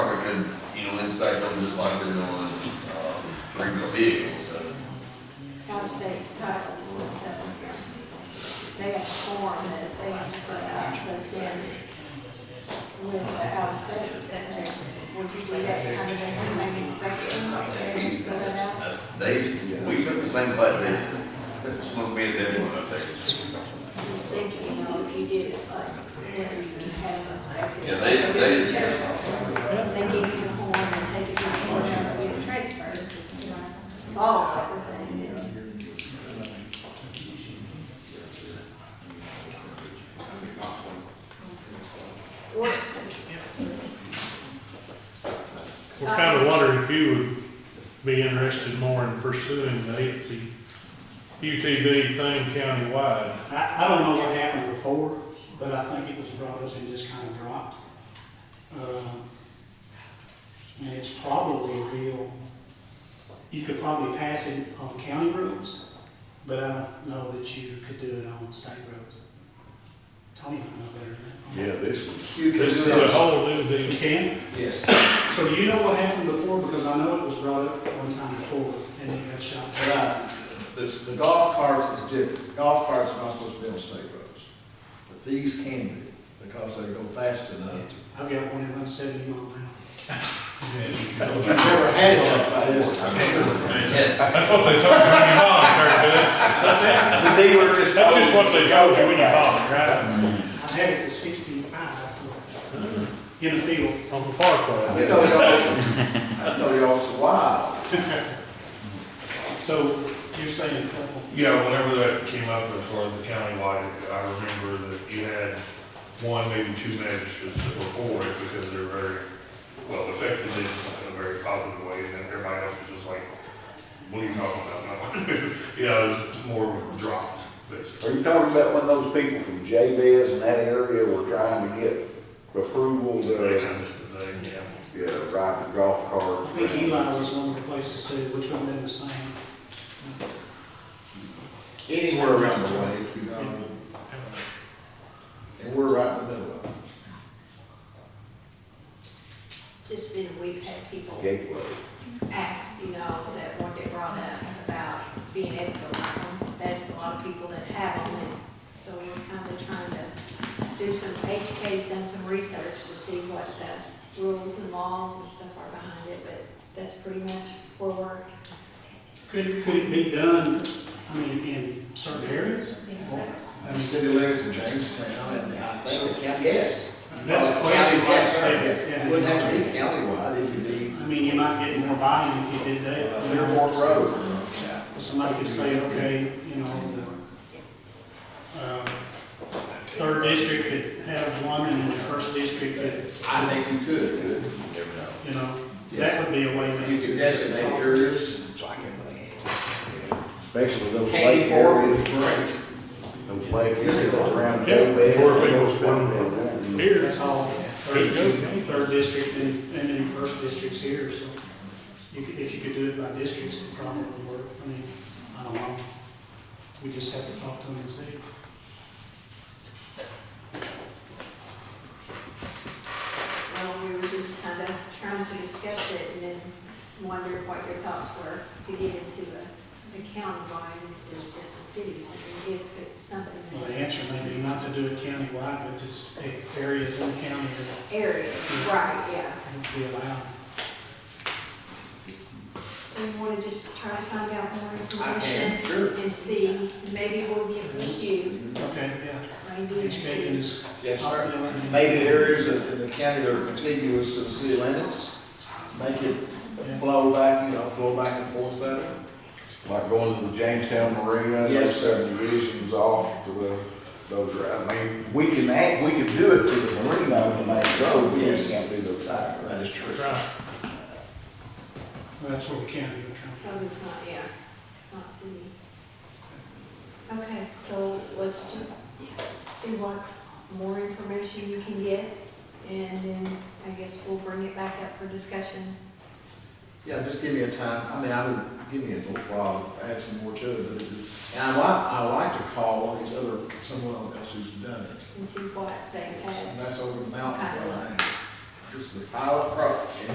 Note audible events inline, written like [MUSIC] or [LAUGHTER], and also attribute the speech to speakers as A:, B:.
A: could, you know, inspect them just like they're doing, um, three-wheel vehicles, so.
B: out-of-state titles and stuff. They have a form that they have to put out to us in with the out-of-state, that they, would you do that kind of thing, the same inspection, like they put it out?
A: That's, they, we took the same class they did. [LAUGHS] It's not me and them when I take it.
B: I was thinking, you know, if you did it, like, where you had it inspected.
A: Yeah, they- they-
B: They give you the form and take it to the court, and get it transferred, follow everything. What,
C: We're kind of wondering if you would be interested more in pursuing the UT UTV thing countywide.
D: I, I don't know what happened before, but I think it was brought up and just kind of dropped. Um, And it's probably a deal, you could probably pass it on county roads, but I don't know that you could do it on state roads. Tony might know better than
E: Yeah, this was.
F: You can
C: This is
F: do
C: a
F: that.
C: whole new
D: that.
C: deal.
D: You can?
F: Yes.
D: So you know what happened before, because I know it was brought up one time before, and it got shot.
F: Right. uh, The, the golf carts is different. Golf carts are not supposed to be on state roads. But these can be, because they go fast enough.
D: I've got one that runs seventy mile an hour.
F: But you've never had it like that.
C: That's what they told you when you bought it, Terry Judge. That's it.
G: The dealer is.
C: That's just what they told you when you bought it, right?
D: I had it to sixty-five, so, in the field.
C: On the parkway.
F: I know y'all, I know y'all survived.
D: So you're saying a couple,
H: Yeah, whenever that came up as far as the countywide, I remember that you had one, maybe two magistrates that were for it because they're very, well, affected in a very positive way, and then everybody else was just like, what are you talking about? [LAUGHS] You know, it's more of a drop, basically.
E: Are you talking about when those people from JBS and that area were trying to get approval
H: That
E: to,
H: kind of thing, yeah.
E: yeah, ride the golf
D: I
E: cart?
D: think Eli was one of the places too, which one did the same.
F: Anywhere around the lake, you know. And we're right in the middle of it.
B: just been, we've had people
E: Gateway.
B: ask, you know, that one day brought up about being able to run them, that a lot of people that have them, and so we're kind of trying to do some, HK's done some research to see what the rules and laws and stuff are behind it, but that's pretty much where we're.
D: Could, could it be done, I mean, in certain areas? Or- I
F: And
D: mean,
F: city limits in Jamestown, and I think, the county- yes.
D: That's the question.
F: County, yes, sir,
D: Yeah.
F: yes. Wouldn't have to be countywide, it could be uh,
D: I mean, you might get more buy-in if you did that. you know.
F: Dearborn Road.
D: Somebody could say, okay, you know, the, uh, third district could have one and then the first district
F: I
D: could,
F: think you could.
D: you know, that would be a way. to-
F: You could designate areas,
E: Especially those
F: candy
E: lake
F: for
E: areas,
F: is great.
E: those lake areas around
C: Yeah,
E: JBS.
C: where people's
E: going.
C: Here,
D: That's all, third, third district and, and then first district's here, so you could, if you could do it by districts, it probably would work. I mean, I don't know. We just have to talk to them and see.
B: Well, we were just kind of trying to discuss it and then wondered what your thoughts were to get into the, the county line instead of just the city, line, and if it's something
D: Well, the
B: that
D: answer may be not to do it countywide, but just pick areas in the county
B: areas, right, yeah.
D: that would be allowed.
B: So you want to just try to find out more
F: I can,
B: information
F: sure.
B: and see, maybe we'll get with you,
D: Okay, yeah.
B: maybe.
D: Each state can just.
F: Yes, sir. Maybe areas in the county that are contiguous to the city limits, make it
D: Yeah.
F: flow back, you know, flow back and forth better.
E: Like going to the Jamestown Marina,
F: Yes,
E: those
F: sir.
E: subdivisions off to the, those are, I mean, we can act, we can do it to the marina on the main road, we just can't do those side roads.
F: Oh, That is true.
C: right.
D: Well, That's where the county would come.
B: No, it's not, yeah, it's not city. Okay, so let's just see what more information you can get, and then I guess we'll bring it back up for discussion.
F: Yeah, just give me a time, I mean, I would, give me a little while, add some more to it, but, it- and I like, I like to call on these other, someone else who's done it.
B: and see what they have.
F: And that's over the mountain where I am. This is the pilot project,